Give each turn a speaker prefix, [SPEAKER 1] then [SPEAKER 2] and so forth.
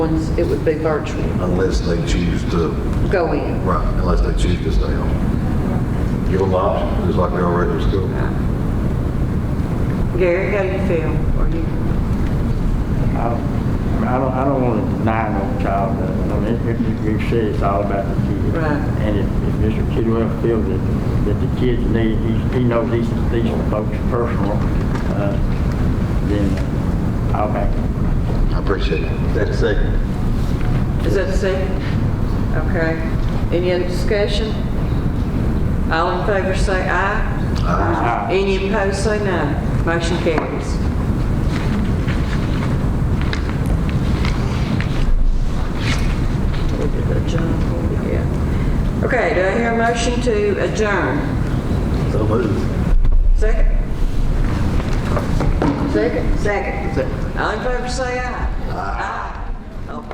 [SPEAKER 1] ones, it would be virtual,
[SPEAKER 2] unless they choose to,
[SPEAKER 1] go in.
[SPEAKER 2] right, unless they choose to stay home. Give them the option, just like they already in school.
[SPEAKER 3] Gary, how do you feel? Are you-
[SPEAKER 4] I I don't, I don't want to deny no child, that- I mean, if you said it's all about the kid.
[SPEAKER 3] Right.
[SPEAKER 4] And if, if Mr. Kidwell feels that, that the kids need, he, he knows these, these folks personal, uh, then I'll back him.
[SPEAKER 2] I appreciate it. That's second.
[SPEAKER 3] Is that the second? Okay. Any other discussion? All in favor say aye.
[SPEAKER 2] Aye.
[SPEAKER 3] Any opposed say no. Motion carries. We did adjourn, yeah. Okay, do I hear a motion to adjourn?
[SPEAKER 2] So moved.
[SPEAKER 3] Second? Second? Second. All in favor say aye. Oh, Aye.